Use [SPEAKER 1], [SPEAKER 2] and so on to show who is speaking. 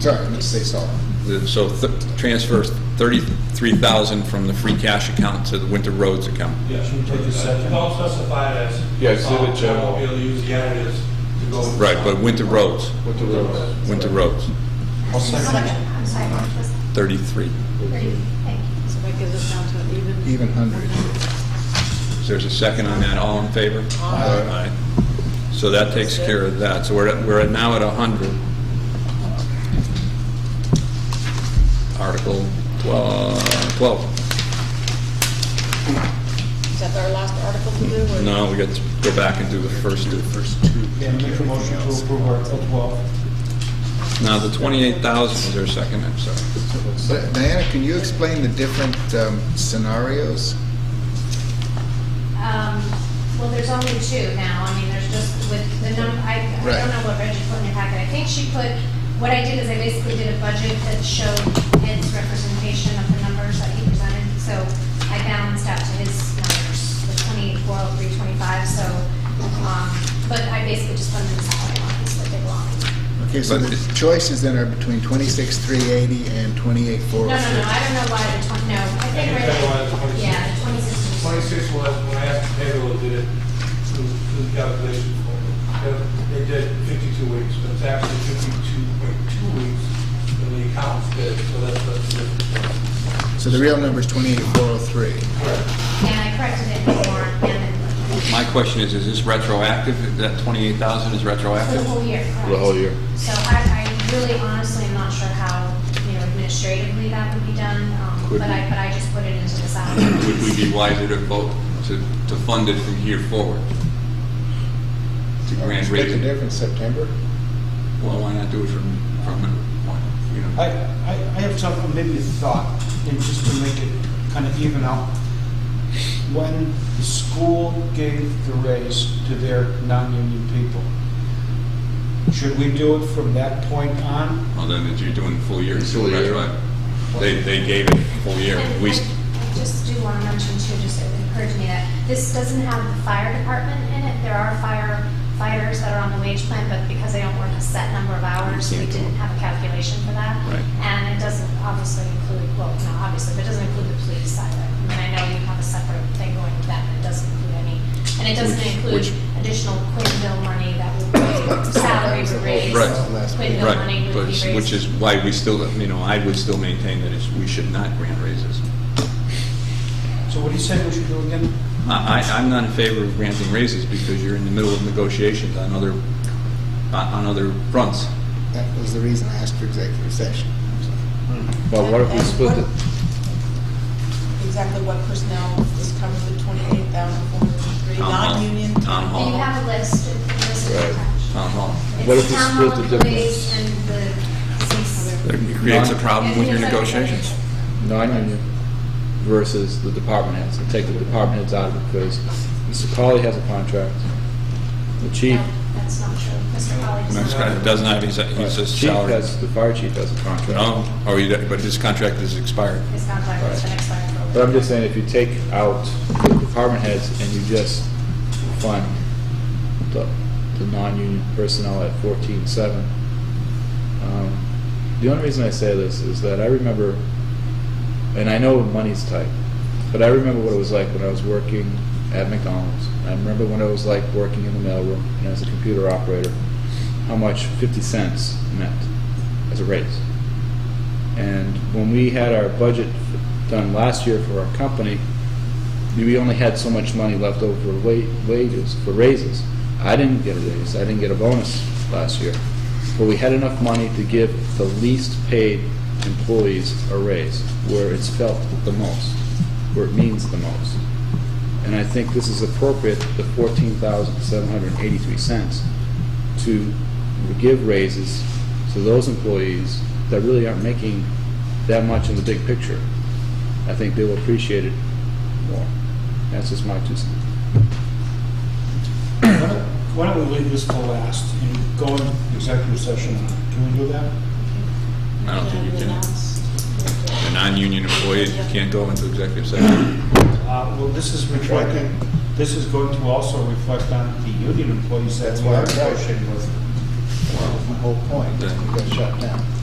[SPEAKER 1] Sorry, I meant to say solid.
[SPEAKER 2] The- So th- transfers 33,000 from the free cash account to the winter roads account.
[SPEAKER 3] Yeah, should we take a second? Don't specify it as.
[SPEAKER 4] Yeah, it's in the
[SPEAKER 3] uh, We'll
[SPEAKER 4] general.
[SPEAKER 3] be able to use the additives to go. with the
[SPEAKER 2] Right,
[SPEAKER 3] song.
[SPEAKER 2] but winter roads,
[SPEAKER 4] With the roads.
[SPEAKER 2] winter roads,
[SPEAKER 3] I'll second.
[SPEAKER 5] I'm sorry, what was
[SPEAKER 2] 33.
[SPEAKER 5] thirty? Thank you.
[SPEAKER 6] So that gives us down to an even.
[SPEAKER 1] Even hundred.
[SPEAKER 2] So there's a second on that, all in favor?
[SPEAKER 1] Aye.
[SPEAKER 2] Aye. So that takes care of that, so we're, at- we're at now at 100. Article 12, 12.
[SPEAKER 6] Is that our last article to do? or-
[SPEAKER 2] No, we got to go back and do the first, the first two.
[SPEAKER 3] Yeah, make a motion to approve Article 12.
[SPEAKER 2] Now, the 28,000, is there a second, I'm sorry?
[SPEAKER 1] But Diana, can you explain the different um, scenarios?
[SPEAKER 5] Um, well, there's only two now, I mean, there's just with the num, I, I
[SPEAKER 1] Right.
[SPEAKER 5] don't know what Reggie put in your packet, I think she put, what I did is I basically did a budget that showed Ed's representation of the numbers that he presented, so I balanced out to his numbers, the twenty-eight, four oh three, twenty-five, so, um, but I basically just funded the salary lines that they belong.
[SPEAKER 1] Okay, so
[SPEAKER 2] But
[SPEAKER 1] the
[SPEAKER 2] it-
[SPEAKER 1] choices then are between twenty-six, three eighty and twenty-eight,
[SPEAKER 5] No,
[SPEAKER 1] four
[SPEAKER 5] no,
[SPEAKER 1] oh
[SPEAKER 5] no, I
[SPEAKER 1] six.
[SPEAKER 5] don't know why the twenty, no, I think
[SPEAKER 3] I think that's why it's
[SPEAKER 5] Reggie,
[SPEAKER 3] 26.
[SPEAKER 5] yeah, the twenty-six.
[SPEAKER 3] 26 was, when I asked the payroll, did it, do the calculation for me. They- They did 52 weeks, but it's actually 52.2 weeks in the accounts did, so that's, that's the difference.
[SPEAKER 1] So the real number is twenty-eight, four oh three.
[SPEAKER 3] Correct.
[SPEAKER 5] And I corrected it in the warrant and
[SPEAKER 2] My question is, is this retroactive, that 28,000 is
[SPEAKER 5] for the
[SPEAKER 2] retroactive?
[SPEAKER 5] whole year, correct?
[SPEAKER 4] The whole year.
[SPEAKER 5] So I, I really honestly am not sure how, you know, administratively that would be done, um,
[SPEAKER 2] Could
[SPEAKER 5] but I,
[SPEAKER 2] we-
[SPEAKER 5] but I just put it into the
[SPEAKER 2] Would we
[SPEAKER 5] salary.
[SPEAKER 2] be wiser to vote, to, to fund it from here forward? To grant
[SPEAKER 1] Split the
[SPEAKER 2] rate?
[SPEAKER 1] difference, September?
[SPEAKER 2] Well, why not do it from, from, why- you
[SPEAKER 7] I, I,
[SPEAKER 2] know?
[SPEAKER 7] I have something, maybe a thought, and just to make it kind of even out. When the school gave the raise to their non-union people, should we do it from that point on?
[SPEAKER 2] Well, then that you're doing full year.
[SPEAKER 4] Full year.
[SPEAKER 2] retroactive. They, they gave it full year.
[SPEAKER 5] And
[SPEAKER 2] We,
[SPEAKER 5] I I just do want to mention too, just it occurred to me that this doesn't have the fire department in it. There are firefighters that are on the wage plan, but because they don't work a set number of hours, we
[SPEAKER 2] can't do it.
[SPEAKER 5] didn't have a calculation for that.
[SPEAKER 2] Right.
[SPEAKER 5] And it doesn't obviously include, well, not obviously, but it doesn't include the police either. I mean, I know you have a separate thing going with that, but it doesn't include any, and it doesn't
[SPEAKER 2] Which-
[SPEAKER 5] include
[SPEAKER 2] which-
[SPEAKER 5] additional Quinville money that would be salary
[SPEAKER 1] That was the whole-
[SPEAKER 5] raise.
[SPEAKER 2] Right.
[SPEAKER 5] Quinville money
[SPEAKER 2] right,
[SPEAKER 5] would
[SPEAKER 2] but,
[SPEAKER 5] be raised.
[SPEAKER 2] which is why we still, you know, I would still maintain that it's, we should not grant raises.
[SPEAKER 7] So what do you say we should do again?
[SPEAKER 2] I, I- I'm not in favor of granting raises because you're in the middle of negotiations on other, on on other fronts.
[SPEAKER 1] That was the reason I asked for executive session.
[SPEAKER 4] Well, what if we
[SPEAKER 6] And
[SPEAKER 4] split
[SPEAKER 6] what-
[SPEAKER 4] it?
[SPEAKER 6] Exactly what personnel is covered with twenty-eight thousand four hundred and three,
[SPEAKER 2] Town hall.
[SPEAKER 6] non-union?
[SPEAKER 2] Town hall.
[SPEAKER 5] And you have a list, of the list is
[SPEAKER 4] Right.
[SPEAKER 5] attached.
[SPEAKER 2] Town hall.
[SPEAKER 4] What
[SPEAKER 5] It's
[SPEAKER 4] if we
[SPEAKER 5] town
[SPEAKER 4] split
[SPEAKER 5] hall
[SPEAKER 4] the
[SPEAKER 5] employees
[SPEAKER 4] difference?
[SPEAKER 5] And the deceased.
[SPEAKER 2] That creates a problem with your
[SPEAKER 5] Yeah, it's like-
[SPEAKER 2] negotiations.
[SPEAKER 4] Non-union versus the department heads, and take the department heads out of it, because Mr. Colley has a contract, the chief,
[SPEAKER 5] No, That's not true. Mr. Holly
[SPEAKER 2] Max
[SPEAKER 5] does
[SPEAKER 2] Scott
[SPEAKER 5] not.
[SPEAKER 2] doesn't have, he's a, he's a
[SPEAKER 4] chief
[SPEAKER 2] salary.
[SPEAKER 4] has, the fire chief has a contract.
[SPEAKER 2] No, or he, but his contract is expired.
[SPEAKER 5] His contract has been expired for.
[SPEAKER 4] But I'm just saying, if you take out the department heads and you just fund the, the non-union personnel at fourteen seven, um, the only reason I say this is that I remember, and I know money's tight, but I remember what it was like when I was working at McDonald's. I remember when it was like working in the mailroom and as a computer operator, how much fifty cents meant as a raise. And when we had our budget f- done last year for our company, we only had so much money left over for wa- wages, for raises. I didn't get a raise, I didn't get a bonus last year. But we had enough money to give the least paid employees a raise, where it's felt the most, where it means the most. And I think this is appropriate, the fourteen thousand seven hundred and eighty-three cents, to give raises to those employees that really aren't making that much in the big picture. I think they will appreciate it more. That's just my two cents.
[SPEAKER 7] Why don't- Why don't we leave this till last and go into executive session? on it? Can we do that?
[SPEAKER 2] I don't think you can, a non-union employee, you can't go into executive session.
[SPEAKER 7] Uh, well, this is reflecting, this is going to also reflect on the union employees that
[SPEAKER 1] That's
[SPEAKER 7] we
[SPEAKER 1] why I
[SPEAKER 7] are
[SPEAKER 1] was
[SPEAKER 7] negotiating with.
[SPEAKER 1] My whole point, is we got shut down.